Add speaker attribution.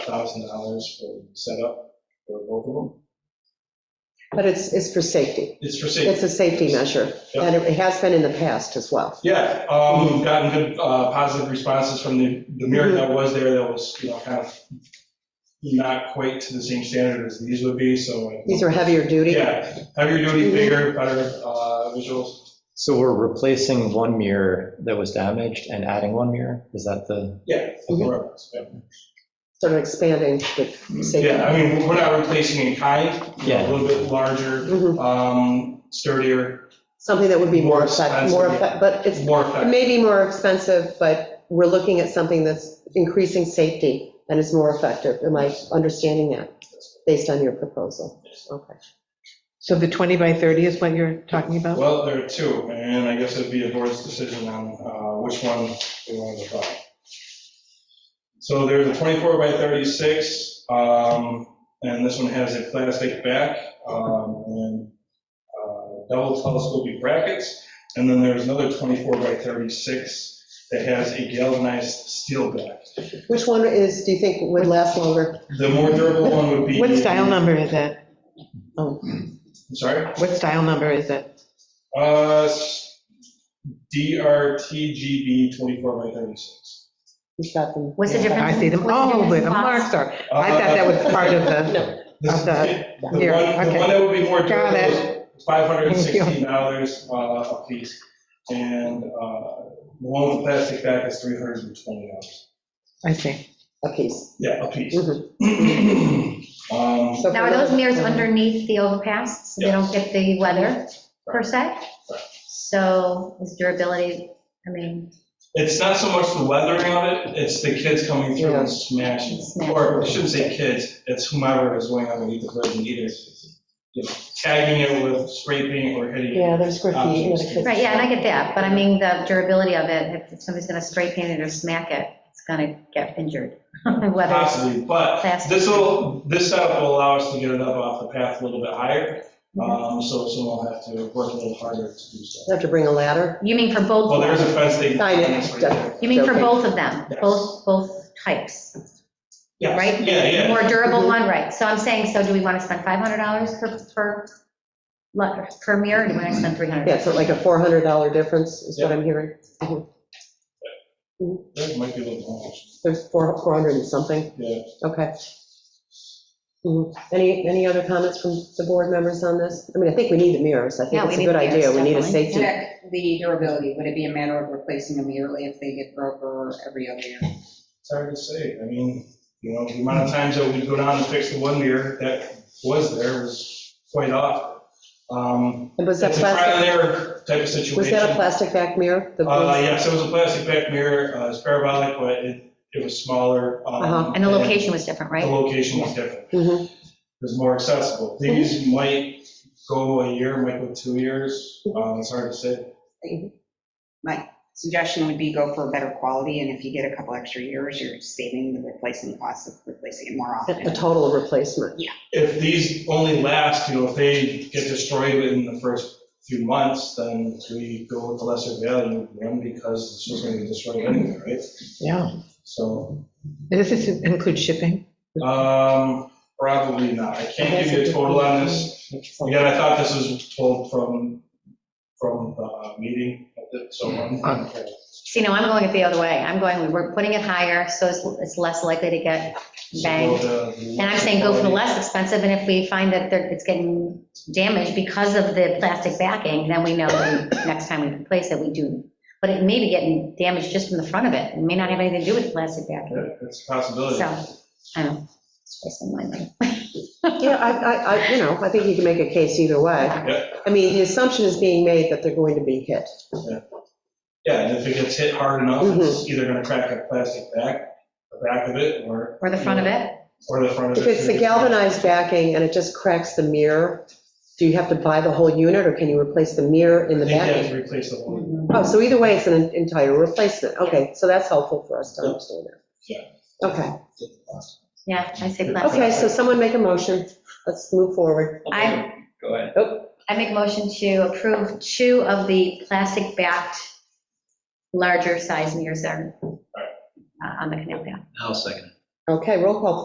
Speaker 1: thousand dollars for setup for both of them.
Speaker 2: But it's, it's for safety.
Speaker 1: It's for safety.
Speaker 2: It's a safety measure,
Speaker 1: Yeah.
Speaker 2: and it has been in the past as well.
Speaker 1: Yeah, um,
Speaker 2: Mm-hmm.
Speaker 1: we've gotten good, uh, positive responses from the, the mirror that was there that was, you know, kind of not quite to the same standard as these would be, so. I-
Speaker 2: These are Mm-hmm. heavier duty.
Speaker 1: Yeah, heavier duty, bigger, better, uh, visuals.
Speaker 3: So we're replacing one mirror that was damaged and adding one mirror? Is that the,
Speaker 1: Yeah.
Speaker 2: Mhm.
Speaker 1: more, yeah.
Speaker 2: sort of expanding the
Speaker 1: Yeah,
Speaker 2: safety.
Speaker 1: I mean, we're not replacing in kind, you know, a
Speaker 3: Yeah.
Speaker 1: little bit larger,
Speaker 2: Mhm.
Speaker 1: um, sturdier,
Speaker 2: Something that would be more
Speaker 1: More
Speaker 2: effective, more,
Speaker 1: expensive,
Speaker 2: effect- but it's,
Speaker 1: more
Speaker 2: it
Speaker 1: effective.
Speaker 2: may be more expensive, but we're looking at something that's increasing safety and is more effective. Am I understanding that, based on your proposal? Okay.
Speaker 4: So the 20 by 30 is what you're talking about?
Speaker 1: Well, there are two, and I guess it'd be a board's decision on uh, which one they want to try. So there's a 24 by 36, um, and this one has a plastic back um, and uh, double telescoping brackets. And then there's another 24 by 36 that has a galvanized steel back.
Speaker 2: Which one is, do you think would last longer?
Speaker 1: The more durable one would be.
Speaker 4: What style number is that?
Speaker 2: Oh.
Speaker 1: I'm Sorry?
Speaker 4: What style number is it?
Speaker 1: Uh, s- DRTGB 24 by 36.
Speaker 2: You've got them.
Speaker 5: What's the difference?
Speaker 4: I see them, oh, where the marks are. I thought that was part of the,
Speaker 2: No,
Speaker 1: This-
Speaker 4: Of the-
Speaker 1: The one,
Speaker 4: here,
Speaker 1: the
Speaker 4: okay.
Speaker 1: one that would be more
Speaker 4: Got
Speaker 1: durable
Speaker 4: it.
Speaker 1: is $516 uh, a piece, and uh, the one with the plastic back is $320.
Speaker 4: I see.
Speaker 2: a piece.
Speaker 1: Yeah, a piece.
Speaker 2: Mhm.
Speaker 1: Um,
Speaker 2: So for
Speaker 5: Now, are those
Speaker 2: another-
Speaker 5: mirrors underneath the overpass, so they don't get the weather per se? So is durability, I mean,
Speaker 1: It's not so much the weathering of it, it's the kids coming through
Speaker 2: Yeah.
Speaker 1: and smashing. it.
Speaker 5: Smashing.
Speaker 1: Or I shouldn't say kids, it's whomever is going underneath the bridge and either you know, tagging it with spray paint or hitting it.
Speaker 2: Yeah, there's graffiti. you know, the kids-
Speaker 5: right, yeah, and I get that, but I mean, the durability of it, if somebody's gonna spray paint it or smack it, it's gonna get injured. Whether it's
Speaker 1: Possibly, but
Speaker 5: plastic.
Speaker 1: this will, this setup will allow us to get it up off the path a little bit higher, um, so someone will have to work a little harder to do so.
Speaker 2: Have to bring a ladder.
Speaker 5: You mean for both?
Speaker 1: Well, there's a fence they.
Speaker 2: Sign it.
Speaker 1: that's right there.
Speaker 5: You mean for
Speaker 2: Okay.
Speaker 5: both of them,
Speaker 1: Yes.
Speaker 5: both, both types,
Speaker 1: Yes,
Speaker 5: right?
Speaker 1: Yeah,
Speaker 5: The
Speaker 1: yeah.
Speaker 5: More durable one, right, so I'm saying, so do we wanna spend $500 per, per, le- per mirror, or do we wanna spend $300?
Speaker 2: Yeah, so like a $400 difference is what I'm hearing.
Speaker 1: That might be a little much.
Speaker 2: There's four- 400 and something?
Speaker 1: Yeah.
Speaker 2: Okay. Mhm. Any, any other comments from the board members on this? I mean, I think we need the mirrors. I think
Speaker 5: Yeah,
Speaker 2: it's a
Speaker 5: we
Speaker 2: good
Speaker 5: need the
Speaker 2: idea. We need a
Speaker 5: mirrors, definitely.
Speaker 2: safety.
Speaker 6: check the durability, would it be a matter of replacing them yearly if they get broke or every other year?
Speaker 1: It's hard to say. I mean, you know, the amount of times that we go down and fix the one mirror that was there was quite often. Um,
Speaker 2: And was that
Speaker 1: It's a trial and
Speaker 2: plastic,
Speaker 1: error type of situation.
Speaker 2: was that a plastic back mirror? The-
Speaker 1: Uh, yes, it was a plastic back mirror. Uh, It's parabolic, but it, it was smaller. um,
Speaker 2: Uh-huh.
Speaker 5: And the location was different,
Speaker 1: The
Speaker 5: right?
Speaker 1: location was different.
Speaker 2: Mhm.
Speaker 1: It was more accessible. These might go a year, might go two years. Um, It's hard to say.
Speaker 6: Suggestion would be go for a better quality, and if you get a couple extra years, you're saving the replacement cost of replacing it more
Speaker 2: A a
Speaker 6: often.
Speaker 2: total replacement.
Speaker 1: If these only last, you know, if they get destroyed within the first few months, then we go with the lesser value one because it's just going to be destroyed anyway, right?
Speaker 4: Yeah.
Speaker 1: So,
Speaker 4: Does this include shipping?
Speaker 1: um, probably not. I can't give you a total on this. Again, I thought this was told from, from the meeting, so. um,
Speaker 4: Okay.
Speaker 5: See, no, I'm going it the other way. I'm going, we're putting it higher, so it's, it's less likely to get banged. And I'm saying go for the less expensive, and if we find that they're- it's getting damaged because of the plastic backing, then we know that next time we replace it, we do. But it may be getting damaged just from the front of it. It may not have anything to do with the plastic backing.
Speaker 1: Yeah, It's a possibility.
Speaker 5: So, I don't know. It's wasting my money.
Speaker 2: Yeah, I, I, I, you know, I think you can make a case either way. I mean, the assumption is being made that they're going to be hit.
Speaker 1: Yeah, and if it gets hit hard enough, it's
Speaker 2: Mm-hmm.
Speaker 1: either gonna crack a plastic back, the back of it, or,
Speaker 5: Or the front of it?
Speaker 1: or the front of
Speaker 2: If
Speaker 1: it.
Speaker 2: it's the galvanized backing and it just cracks the mirror, do you have to buy the whole unit, or can you replace the mirror in
Speaker 1: I
Speaker 2: the
Speaker 1: think you have
Speaker 2: backing?
Speaker 1: to replace the whole.
Speaker 2: Oh, so either way, it's an entire replacement. Okay, so that's helpful for us to
Speaker 1: Yeah.
Speaker 2: understand
Speaker 1: Yeah.
Speaker 2: that. Okay,
Speaker 5: Yeah, I say plastic.
Speaker 2: okay, so someone make a motion. Let's move forward.
Speaker 5: I. Oh,
Speaker 3: Go ahead.
Speaker 5: I make motion to approve two of the plastic-backed larger size mirrors that are uh, on the canal path.
Speaker 3: I'll second.
Speaker 2: Okay, roll call,